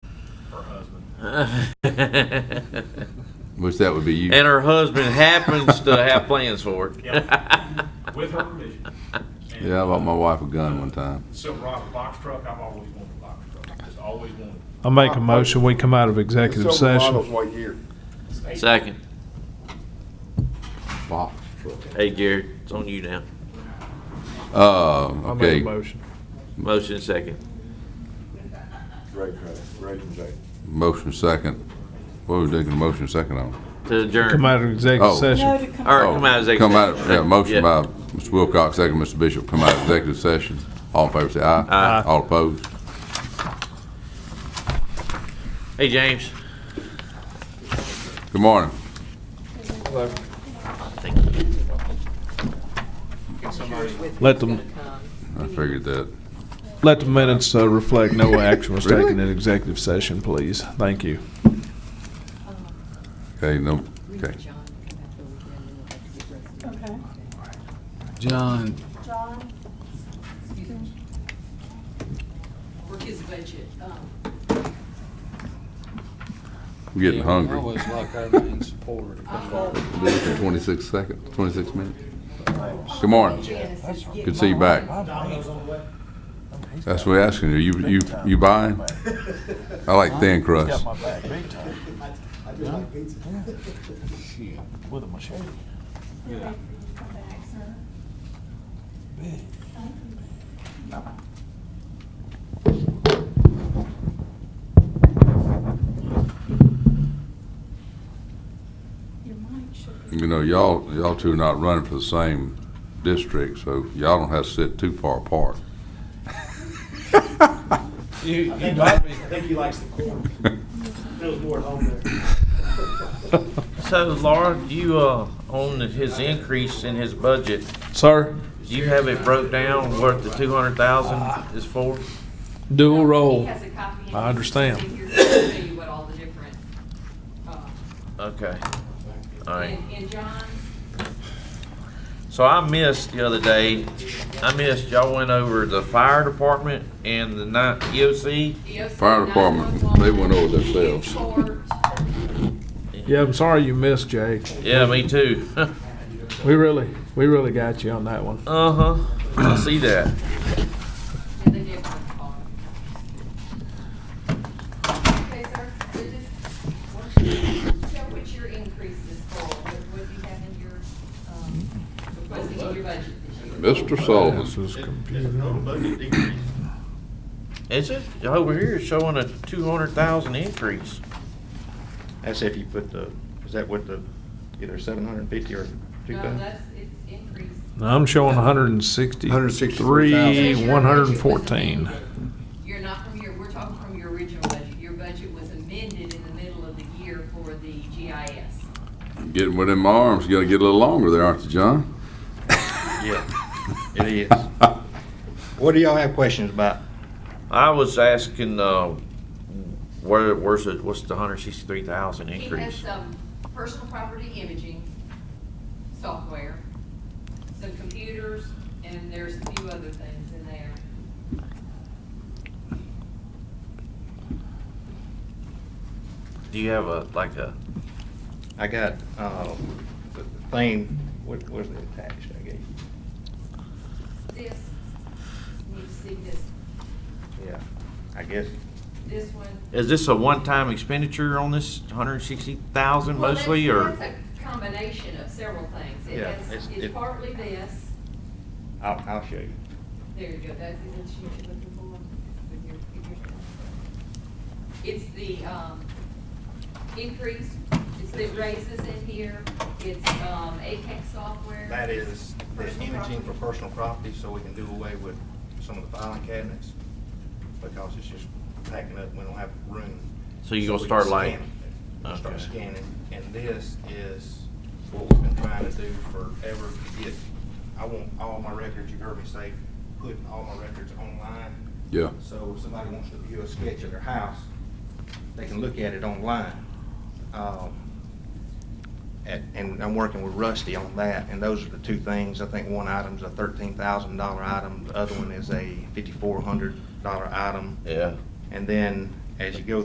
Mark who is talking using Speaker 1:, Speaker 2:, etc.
Speaker 1: and
Speaker 2: Wish that would be you.
Speaker 1: her husband happens to have plans for it.
Speaker 3: with her permission. And
Speaker 2: Yeah, I bought my wife a gun one time.
Speaker 3: the Silver Rock box truck, I've always wanted a box truck, just always wanted.
Speaker 4: I make a motion, we come out of executive
Speaker 5: Silver model's
Speaker 4: session.
Speaker 5: right here.
Speaker 3: Hey,
Speaker 1: Second.
Speaker 2: Wow.
Speaker 1: Hey, Garrett, it's on you now.
Speaker 2: Uh,
Speaker 4: I make
Speaker 2: okay,
Speaker 4: a motion.
Speaker 1: Motion second.
Speaker 5: Right, right, right, right.
Speaker 2: motion second. What was taking a motion second on?
Speaker 1: To
Speaker 4: Come
Speaker 1: adjourn.
Speaker 4: out of executive
Speaker 2: Oh.
Speaker 4: session.
Speaker 6: No, to come
Speaker 1: All right,
Speaker 2: Oh,
Speaker 1: come out of executive.
Speaker 2: Come out,
Speaker 1: session.
Speaker 2: yeah, motion
Speaker 1: Yeah.
Speaker 2: by Mr. Wilcox, second Mr. Bishop, come out of executive session. All in favor, say aye.
Speaker 1: Aye.
Speaker 2: All opposed?
Speaker 1: Hey, James.
Speaker 2: Good morning.
Speaker 4: Let them,
Speaker 2: I figured that.
Speaker 4: let the minutes uh, reflect no action was taken
Speaker 2: Really?
Speaker 4: in executive session, please. Thank you.
Speaker 2: Okay, no, okay.
Speaker 6: Okay.
Speaker 7: John,
Speaker 6: John?
Speaker 8: Work his budget, um,
Speaker 2: I'm getting
Speaker 7: you
Speaker 2: hungry.
Speaker 7: always like our main supporter.
Speaker 2: Twenty-six seconds, twenty-six minutes. Good morning. Good to see you back. That's what we're asking you. You, you, you buying? I like thin crust.
Speaker 7: Yeah.
Speaker 6: Your mic should be.
Speaker 2: You know, y'all, y'all two are not running for the same district, so y'all don't have to sit too far apart.
Speaker 7: You, you might be,
Speaker 1: So, Laura, you, uh, on his increase in his budget,
Speaker 4: Sir,
Speaker 1: do you have it broke down what the two hundred thousand is for?
Speaker 4: dual
Speaker 8: He
Speaker 4: roll.
Speaker 8: has a copy. in his
Speaker 4: I understand.
Speaker 8: office in here to tell you what all the different, uh,
Speaker 1: Okay. All right.
Speaker 8: and, and John's
Speaker 1: So I missed the other day, I missed, y'all went over the fire department and the night E EOC.
Speaker 2: Fire department, they went over themselves.
Speaker 4: Yeah, I'm sorry you missed, Jay.
Speaker 1: Yeah, me too.
Speaker 4: We really, we really got you on that one.
Speaker 1: Uh-huh. I see that.
Speaker 8: And they did one call. Okay, sir, so just, what you- show what your increase is for, what what you have in your, um, requesting in your budget this year.
Speaker 2: Mr. Sullivan,
Speaker 4: is
Speaker 3: There's no budget decrease.
Speaker 1: Is it? Over here it's showing a two hundred thousand increase.
Speaker 9: That's if you put the, is that what the, either seven hundred and fifty or two
Speaker 8: No,
Speaker 9: thousand?
Speaker 8: that's, it's increase.
Speaker 4: I'm showing 160.
Speaker 2: 163,000.
Speaker 8: Because your budget was
Speaker 4: 114.
Speaker 8: amended. You're not from your, we're talking from your original budget. Your budget was amended in the middle of the year for the GIS.
Speaker 2: getting within my arms, you gotta get a little longer there, aren't you, John?
Speaker 9: Yeah, it is. What do y'all have questions about?
Speaker 1: I was asking, uh, where, where's it, what's the hundred sixty-three thousand
Speaker 8: He has
Speaker 1: increase?
Speaker 8: some personal property imaging software, some computers, and there's a few other things in there.
Speaker 1: Do you have a, like a,
Speaker 9: I got, uh, the thing, what was it attached, I guess?
Speaker 8: This, you need to see this,
Speaker 9: Yeah, I guess.
Speaker 8: this one.
Speaker 1: is this a one-time expenditure on this hundred sixty thousand
Speaker 8: Well,
Speaker 1: mostly,
Speaker 8: that's-
Speaker 1: or?
Speaker 8: That's a combination of several things. It
Speaker 9: Yeah,
Speaker 8: has,
Speaker 9: it's-
Speaker 8: it's
Speaker 9: it-
Speaker 8: partly this,
Speaker 9: I'll, I'll show you.
Speaker 8: there you go, that's the instrument you're looking for with your figures. It's the, um, increase, it's the raises in here, it's, um, ATEC software.
Speaker 9: That is the
Speaker 8: Personal
Speaker 9: imaging for
Speaker 8: property.
Speaker 9: personal property, so we can do away with some of the filing cabinets, because it's just packing up, we don't have room.
Speaker 1: So you gonna
Speaker 9: we
Speaker 1: start
Speaker 9: can
Speaker 1: like-
Speaker 9: scan it. We'll Start
Speaker 1: Okay.
Speaker 9: scanning, and this is what we've been trying to do forever, to get, I want all my records, you heard me say, putting all my records online.
Speaker 2: Yeah.
Speaker 9: So if somebody wants to view a sketch of their house, they can look at it online. Um, at- and I'm working with Rusty on that, and those are the two things. I think one item's a thirteen thousand dollar item, the other one is a fifty-four hundred dollar item.
Speaker 1: Yeah.
Speaker 9: And then, as you go